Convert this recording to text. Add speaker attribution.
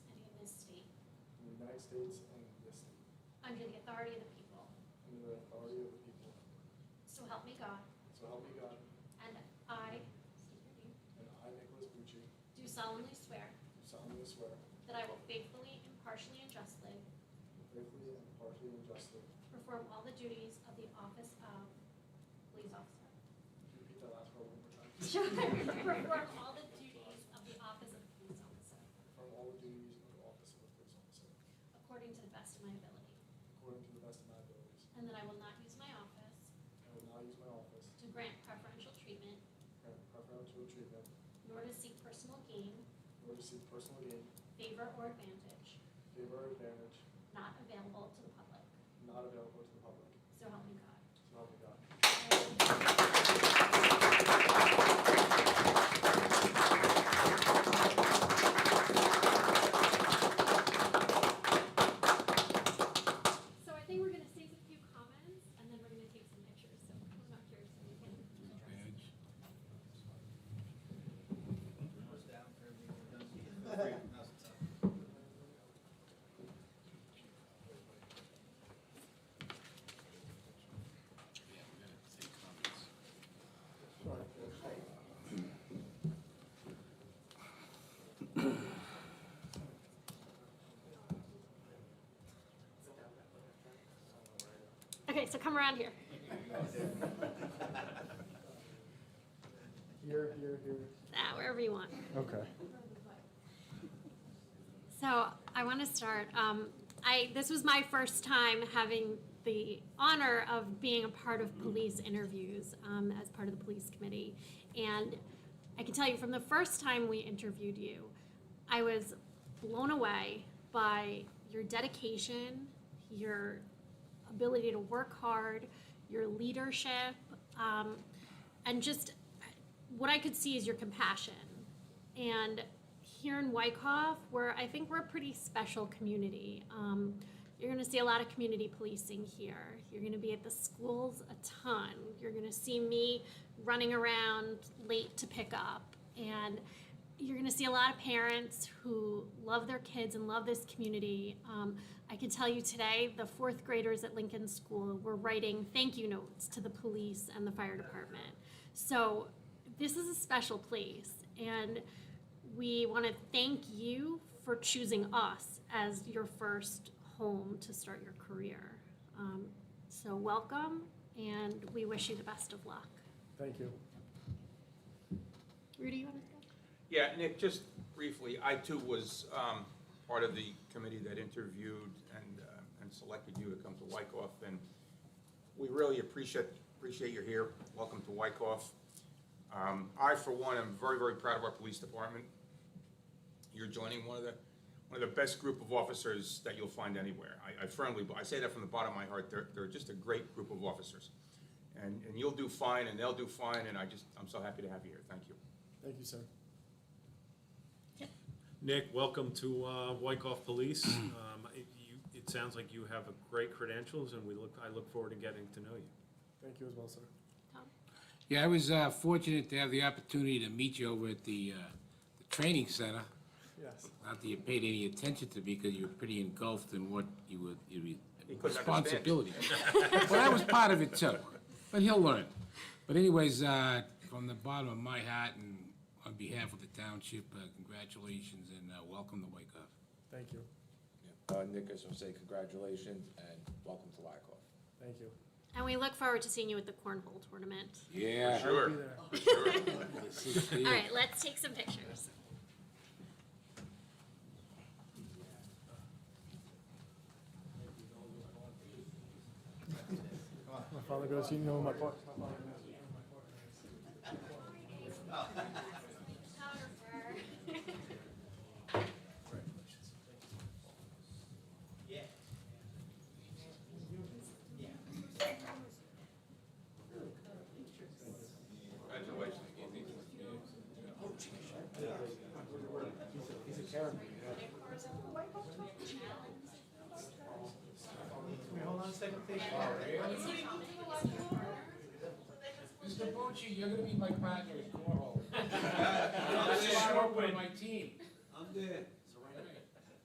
Speaker 1: United States and this state,
Speaker 2: under the authority of the people.
Speaker 1: under the authority of the people.
Speaker 2: So help me God.
Speaker 1: So help me God,
Speaker 2: And I, state your name,
Speaker 1: and I, Nicholas Bucci,
Speaker 2: do
Speaker 1: do
Speaker 2: solemnly swear
Speaker 1: solemnly swear,
Speaker 2: that I will faithfully, impartially, and justly
Speaker 1: faithfully and impartially and justly,
Speaker 2: perform all the duties of the office of police officer.
Speaker 1: Can you repeat that last part one more time?
Speaker 2: Perform all the duties of the office of police officer
Speaker 1: Perform all the duties of the office of a police officer,
Speaker 2: according to the best of my ability.
Speaker 1: according to the best of my abilities.
Speaker 2: And that I will not use my office
Speaker 1: I will not use my office
Speaker 2: to grant preferential treatment
Speaker 1: and preferential treatment,
Speaker 2: nor to seek personal gain,
Speaker 1: nor to seek personal gain,
Speaker 2: favor, or advantage
Speaker 1: favor, or advantage,
Speaker 2: not available to the public.
Speaker 1: not available to the public.
Speaker 2: So help me God.
Speaker 1: So help me God.
Speaker 2: So I think we're gonna save a few comments, and then we're gonna take some pictures, so come up here so we can address. Okay, so come around here.
Speaker 1: Here, here, here.
Speaker 2: Ah, wherever you want.
Speaker 1: Okay.
Speaker 2: So I want to start. Um, I this was my first time having the honor of being a part of police interviews um, as part of the police committee, and I can tell you from the first time we interviewed you, I was blown away by your dedication, your ability to work hard, your leadership, um, and just what I could see is your compassion. And here in Wyckoff, where I think we're a pretty special community, um, you're going to see a lot of community policing here. You're going to be at the schools a ton. You're going to see me running around late to pick up. And you're going to see a lot of parents who love their kids and love this community. Um, I can tell you today, the fourth graders at Lincoln School were writing thank you notes to the police and the fire department. So this is a special place, and we want to thank you for choosing us as your first home to start your career. Um, so welcome, and we wish you the best of luck.
Speaker 1: Thank you.
Speaker 2: Rudy, you want to go?
Speaker 3: Yeah, Nick, just briefly, I too was um, part of the committee that interviewed and, uh, and selected you to come to Wyckoff, and we really appreciate, appreciate you're here. Welcome to Wyckoff. Um, I, for one, am very, very proud of our police department. You're joining one of the, one of the best group of officers that you'll find anywhere. I- I firmly, I say that from the bottom of my heart, they're, they're just a great group of officers. And, and you'll do fine, and they'll do fine, and I just, I'm so happy to have you here. Thank you.
Speaker 1: Thank you, sir.
Speaker 4: Nick, welcome to uh, Wyckoff Police. Um, it- you- It sounds like you have a great credentials, and we look, I look forward to getting to know you.
Speaker 1: Thank you as well, sir.
Speaker 2: Tom?
Speaker 5: Yeah, I was uh, fortunate to have the opportunity to meet you over at the, uh, the training center.
Speaker 1: Yes.
Speaker 5: Not that you paid any attention to me because you were pretty engulfed in what you were, you
Speaker 3: He
Speaker 5: were
Speaker 3: couldn't understand.
Speaker 5: responsibility. Well, I was part of it too, but he'll learn. But anyways, uh, from the bottom of my heart and on behalf of the township, uh, congratulations and uh, welcome to Wyckoff.
Speaker 1: Thank you.
Speaker 6: Uh, Nick, I just want to say congratulations and welcome to Wyckoff.
Speaker 1: Thank you.
Speaker 2: And we look forward to seeing you at the cornhole tournament.
Speaker 5: Yeah.
Speaker 1: I'll be
Speaker 3: Sure,
Speaker 1: there.
Speaker 3: sure.
Speaker 2: All right, let's take some pictures.
Speaker 1: My father goes, you know my part.
Speaker 3: Congratulations.
Speaker 5: Mr. Bucci, you're gonna be my partner at cornhole.
Speaker 7: I'm
Speaker 5: This is short with my team.
Speaker 7: there.